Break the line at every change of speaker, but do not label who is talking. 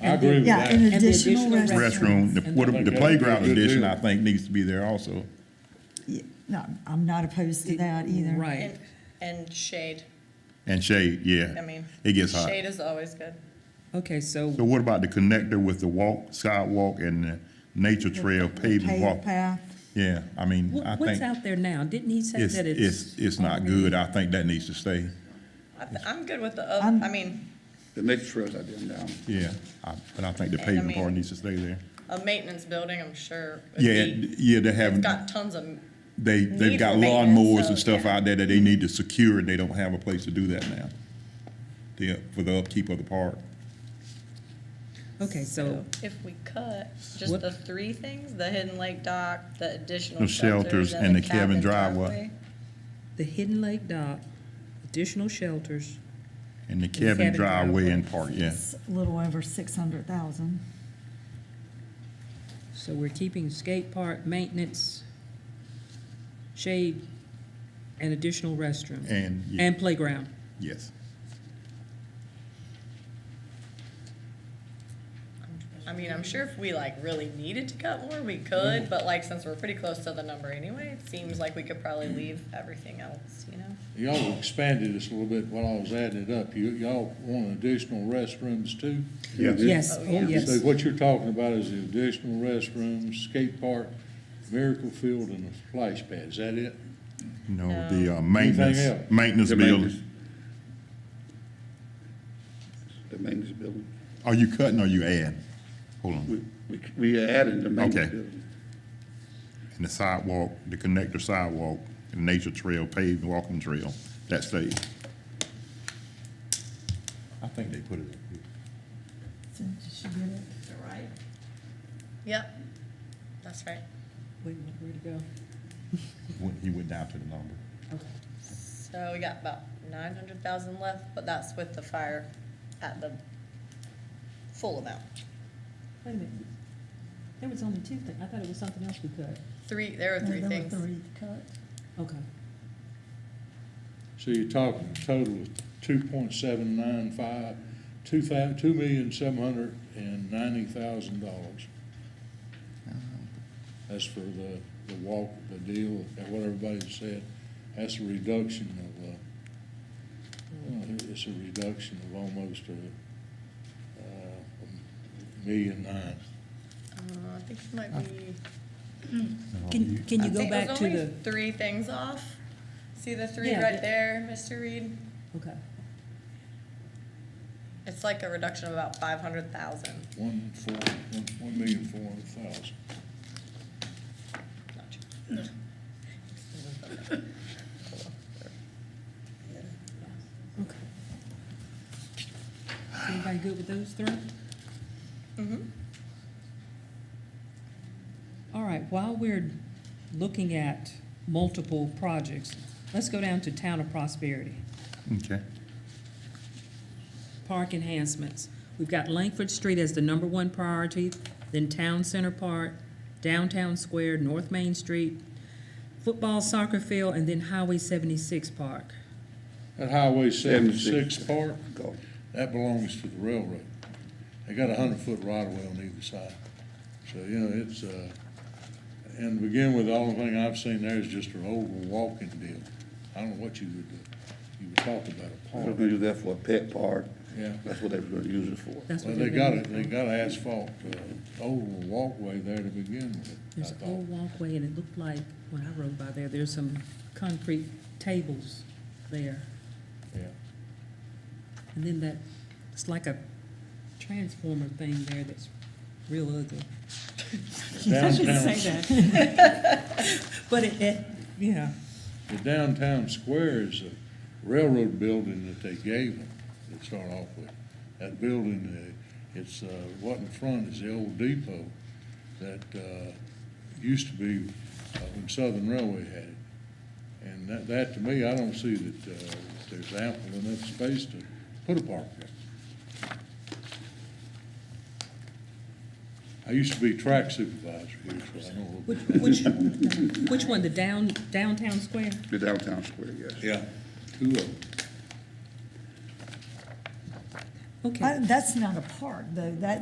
I agree with
Yeah, an
that.
additional
additional
restroom.
restroom.
restroom, the, what-
And
the
that-
playground
that's a good
addition,
deal.
I think, needs to be there also.
Yeah, No, I'm not opposed to that either.
Right.
And, and shade,
And shade, yeah.
I mean.
It gets hot.
Shade is always good.
Okay, so
So what about the connector with the walk, sidewalk and the nature trail paved
Paved
walk?
path,
Yeah, I mean, I
wh- what's
think
out there now? Didn't he say
it's,
that
it's,
it's?
it's not good. I think that needs to stay.
I th- I'm good with the, oth-
I'm-
I mean,
The nature trails out there now.
Yeah, I- but I think the
I
pavement
mean-
part needs to stay there.
a maintenance building, I'm sure. would
Yeah,
be-
yeah, they
It's
have,
got tons of,
they, they've
need
got
for maintenance,
lawnmowers
so,
and stuff
yeah.
out there that they need to secure, and they don't have a place to do that now. The, for the upkeep of the park.
Okay, so,
if we cut just
What-
the three things, the hidden lake dock, the additional
The shelters
shelters
and
and the
the cabin
cabin
driveway.
driveway.
the Hidden Lake dock, additional shelters,
And the
cabin
cabin driveway
driveway.
and park, yeah.
it's a little over six hundred thousand.
so we're keeping skate park, maintenance, shade, and additional restroom,
And, yeah,
and playground.
yes.
I mean, I'm sure if we like really needed to cut more, we could, but like since we're pretty close to the number anyway, it seems like we could probably leave everything else, you know?
Y'all expanded this a little bit while I was adding it up. You, y'all want additional restrooms too?
Yes,
Oh,
oh,
yeah.
So
yes.
what you're talking about is the additional restrooms, skate park, miracle field, and a splash pad. Is that it?
No, the uh, maintenance,
else?
maintenance
The
building.
The maintenance building.
Are you cutting or you add? Hold on.
We, we, we added the
Okay.
maintenance building.
And the sidewalk, the connector sidewalk, the nature trail, paved walking trail, that stays. I think they put it up here.
So did she get it?
Yep, that's right.
Wait, where'd it go?
When He went down to the number.
So we got about nine hundred thousand left, but that's with the fire at the full amount.
Wait a minute. There was only two things. I thought it was something else we cut.
Three, there are
No,
three
there were
things.
Three cut.
Okay.
So you're talking a total of two point seven nine five, two thou, two million seven hundred and ninety thousand dollars. That's for the, the walk, the deal, and what everybody said. That's a reduction of, uh, well, it's a reduction of almost a, uh, a million nine.
Uh, I think it might be.
Can, can you
I
go
think it was
back to
only
the,
Three things off. See the three
Yeah,
right
the-
there, Mr. Reed?
okay.
It's like a reduction of about five hundred thousand.
One four, one, one million four hundred thousand.
Okay. Is Everybody good with those three?
Mm-hmm.
All right, while we're looking at multiple projects, let's go down to Town of Prosperity,
Okay.
park enhancements. We've got Langford Street as the number one priority, then Town Center Park, Downtown Square, North Main Street, football soccer field, and then Highway seventy-six park.
That Highway seventy-six
76.
part,
Go.
that belongs to the railroad. They got a hundred-foot right-of-way on either side. So, you know, it's, uh, and to begin with, the only thing I've seen there is just an old walking deal. I don't know what you would, do. you would talk about a
They were
park.
gonna use that for a pet park.
Yeah.
That's what they were gonna use it for.
That's
Well,
what
they
they're
got
gonna.
a, they got an asphalt, uh, old walkway there to begin with, I
There's an
thought.
old walkway, and it looked like, when I rode by there, there's some concrete tables there.
Yeah.
And then that, it's like a transformer thing there that's real ugly.
Downtown,
that. But it, it, yeah,
the downtown square is a railroad building that they gave them to start off with. That building, uh, it's, uh, what in front is the old depot that, uh, used to be uh, when Southern Railway had it. And that, that to me, I don't see that, uh, there's ample enough space to put a park there. I used to be track supervisor here, so I know.
which, which, which one, the down, downtown square?
The downtown square, yes.
Yeah, two of them.
Okay.
I- That's not Uh, a park, though, that's